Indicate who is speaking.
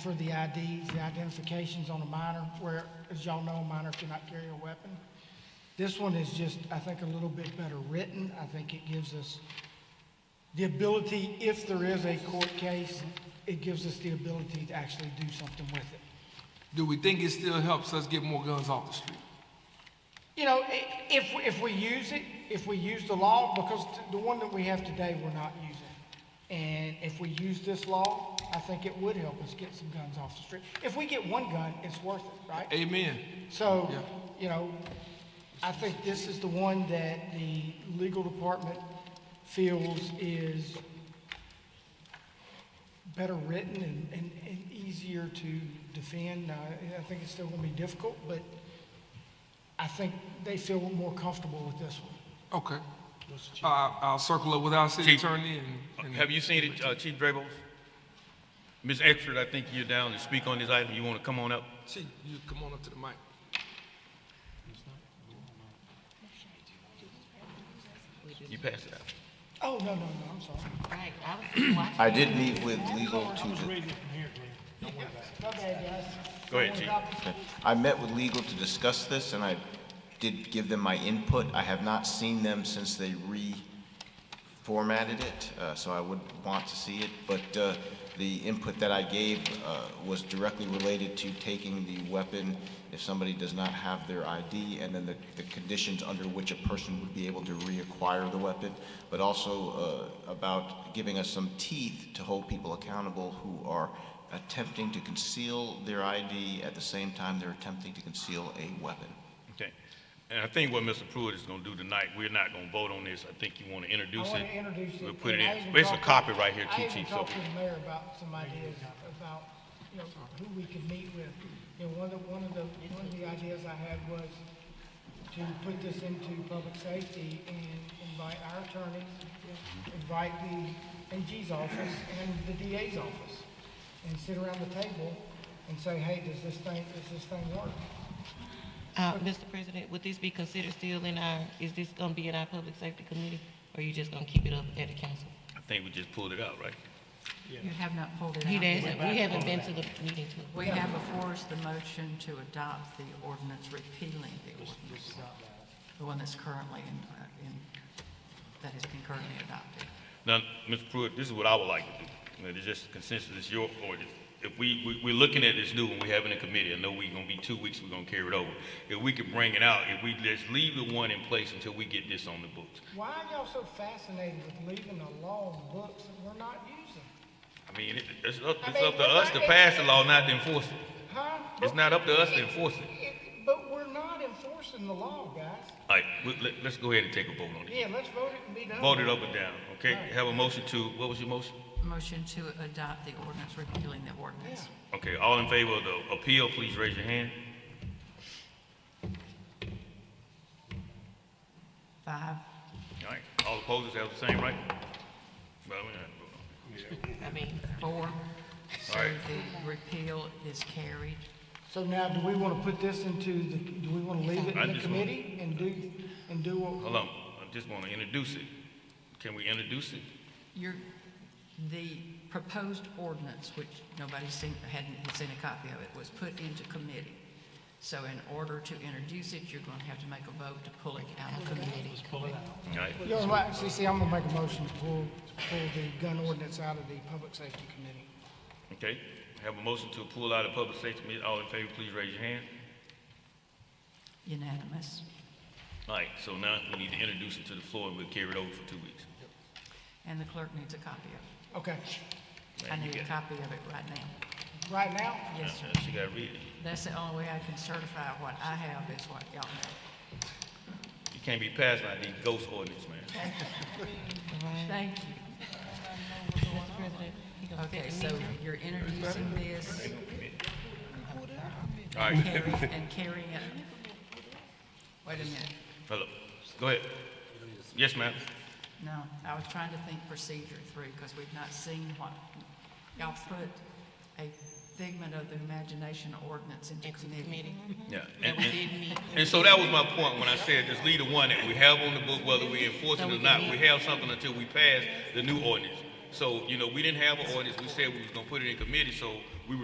Speaker 1: for the IDs, the identifications on a minor, where, as y'all know, a minor cannot carry a weapon. This one is just, I think, a little bit better written. I think it gives us the ability, if there is a court case, it gives us the ability to actually do something with it.
Speaker 2: Do we think it still helps us get more guns off the street?
Speaker 1: You know, i- if, if we use it, if we use the law, because t- the one that we have today, we're not using. And if we use this law, I think it would help us get some guns off the street. If we get one gun, it's worth it, right?
Speaker 2: Amen.
Speaker 1: So,
Speaker 2: Yeah.
Speaker 1: you know, I think this is the one that the legal department feels is better written and, and, and easier to defend. Now, I- I think it's still gonna be difficult, but I think they feel more comfortable with this one.
Speaker 2: Okay. I, I'll circle up with our city
Speaker 3: Chief.
Speaker 2: attorney and, and
Speaker 3: Have you seen it, uh, Chief Drables? Ms. Exford, I think you're down to speak on this item. You want to come on up?
Speaker 2: Chief, you come on up to the mic.
Speaker 3: You pass it out.
Speaker 1: Oh, no, no, no, I'm sorry.
Speaker 4: Right, I was watching.
Speaker 5: I did meet with legal to,
Speaker 1: My bad, guys.
Speaker 3: Go ahead, Chief.
Speaker 5: I met with legal to discuss this, and I did give them my input. I have not seen them since they reformatted it, uh, so I would want to see it. But uh, the input that I gave uh, was directly related to taking the weapon if somebody does not have their ID, and then the, the conditions under which a person would be able to reacquire the weapon, but also uh, about giving us some teeth to hold people accountable who are attempting to conceal their ID at the same time they're attempting to conceal a weapon.
Speaker 3: Okay. And I think what Mr. Pruitt is going to do tonight, we're not going to vote on this. I think you want to
Speaker 1: I
Speaker 3: introduce it.
Speaker 1: want to introduce it.
Speaker 3: We'll put it
Speaker 1: and I
Speaker 3: in.
Speaker 1: even
Speaker 3: It's a
Speaker 1: talked-
Speaker 3: copy right here,
Speaker 1: I
Speaker 3: Chief.
Speaker 1: even
Speaker 3: Chief. So
Speaker 1: talked to the mayor about some ideas about, you know, who we could meet with. You know, one of, one of the, one of the ideas I had was to put this into public safety and invite our attorneys, invite the AG's office and the DA's office, and sit around the table and say, hey, does this thing, does this thing work?
Speaker 4: Uh, Mr. President, would this be considered still in our, is this gonna be in our public safety committee? Or you just gonna keep it up at the council?
Speaker 3: I think we just pulled it out, right?
Speaker 6: You have not pulled it
Speaker 4: He
Speaker 6: out.
Speaker 4: doesn't, we haven't been to the meeting to.
Speaker 6: We have before us the motion to adopt the ordinance repealing the ordinance, the one that's currently in, in, that has been currently adopted.
Speaker 3: Now, Mr. Pruitt, this is what I would like to do. You know, It's just consensus, it's your ordinance. If we, we, we're looking at this new one, we have it in committee, I know we're gonna be two weeks, we're gonna carry it over. If we could bring it out, if we, let's leave the one in place until we get this on the books.
Speaker 1: Why are y'all so fascinated with leaving a law in the books that we're not using?
Speaker 3: I mean, it, it's up,
Speaker 1: I
Speaker 3: it's
Speaker 1: mean,
Speaker 3: up to
Speaker 1: but
Speaker 3: us
Speaker 1: I-
Speaker 3: to pass the law, not to enforce it.
Speaker 1: Huh?
Speaker 3: It's not up to us to enforce it.
Speaker 1: It- But we're not enforcing the law, guys.
Speaker 3: All right, we- let, let's go ahead and take a vote on it.
Speaker 1: Yeah, let's vote it and be done.
Speaker 3: Vote it up and down, okay? Have a motion to, what was your motion?
Speaker 6: Motion to adopt the ordinance repealing the ordinance.
Speaker 3: Okay, all in favor of the appeal, please raise your hand.
Speaker 6: Five.
Speaker 3: All right, all opposers have the same right? Well, we don't have to vote on it.
Speaker 4: I mean,
Speaker 6: Four. So
Speaker 3: All right.
Speaker 6: the repeal is carried.
Speaker 1: So now, do we want to put this into the, do we want to leave it
Speaker 3: I
Speaker 1: in the
Speaker 3: just wanna-
Speaker 1: committee and do, and do what?
Speaker 3: Hold on, I just want to introduce it. Can we introduce it?
Speaker 6: Your, the proposed ordinance, which nobody's seen, hadn't had seen a copy of it, was put into committee. So in order to introduce it, you're going to have to make a vote to pull it out of committee.
Speaker 3: All right,
Speaker 1: You're right, see, see, I'm gonna make a motion to pull, pull the gun ordinance out of the public safety committee.
Speaker 3: okay. Have a motion to pull out of public safety meeting. All in favor, please raise your hand.
Speaker 6: Unanimous.
Speaker 3: All right, so now we need to introduce it to the floor and we'll carry it over for two weeks.
Speaker 6: And the clerk needs a copy of
Speaker 1: Okay,
Speaker 6: it. I
Speaker 3: Man, you
Speaker 6: need a
Speaker 3: got-
Speaker 6: copy of it right now.
Speaker 1: right now,
Speaker 6: Yes, sir.
Speaker 3: Uh, She got to read it.
Speaker 6: That's the only way I can certify what I have is what y'all know.
Speaker 3: You can't be passing out these ghost ordinance, man.
Speaker 4: right,
Speaker 6: Thank you.
Speaker 4: Mr. President. he gonna set
Speaker 6: Okay,
Speaker 4: the
Speaker 6: so
Speaker 4: meeting.
Speaker 6: you're introducing this
Speaker 3: All right,
Speaker 6: carry- and carrying it. Wait a minute.
Speaker 3: hello, go ahead. Yes, ma'am.
Speaker 6: No, I was trying to think procedure through, because we've not seen what, y'all put a figment of the imagination ordinance into
Speaker 4: Into
Speaker 6: committee.
Speaker 4: committee.
Speaker 3: Yeah.
Speaker 4: That
Speaker 3: And,
Speaker 4: we
Speaker 3: and,
Speaker 4: did meet.
Speaker 3: and so that was my point when I said, just leave the one that we have on the book, whether we enforce it or not. We have something until we pass the new ordinance. So, you know, we didn't have an ordinance. We said we was gonna put it in committee, so we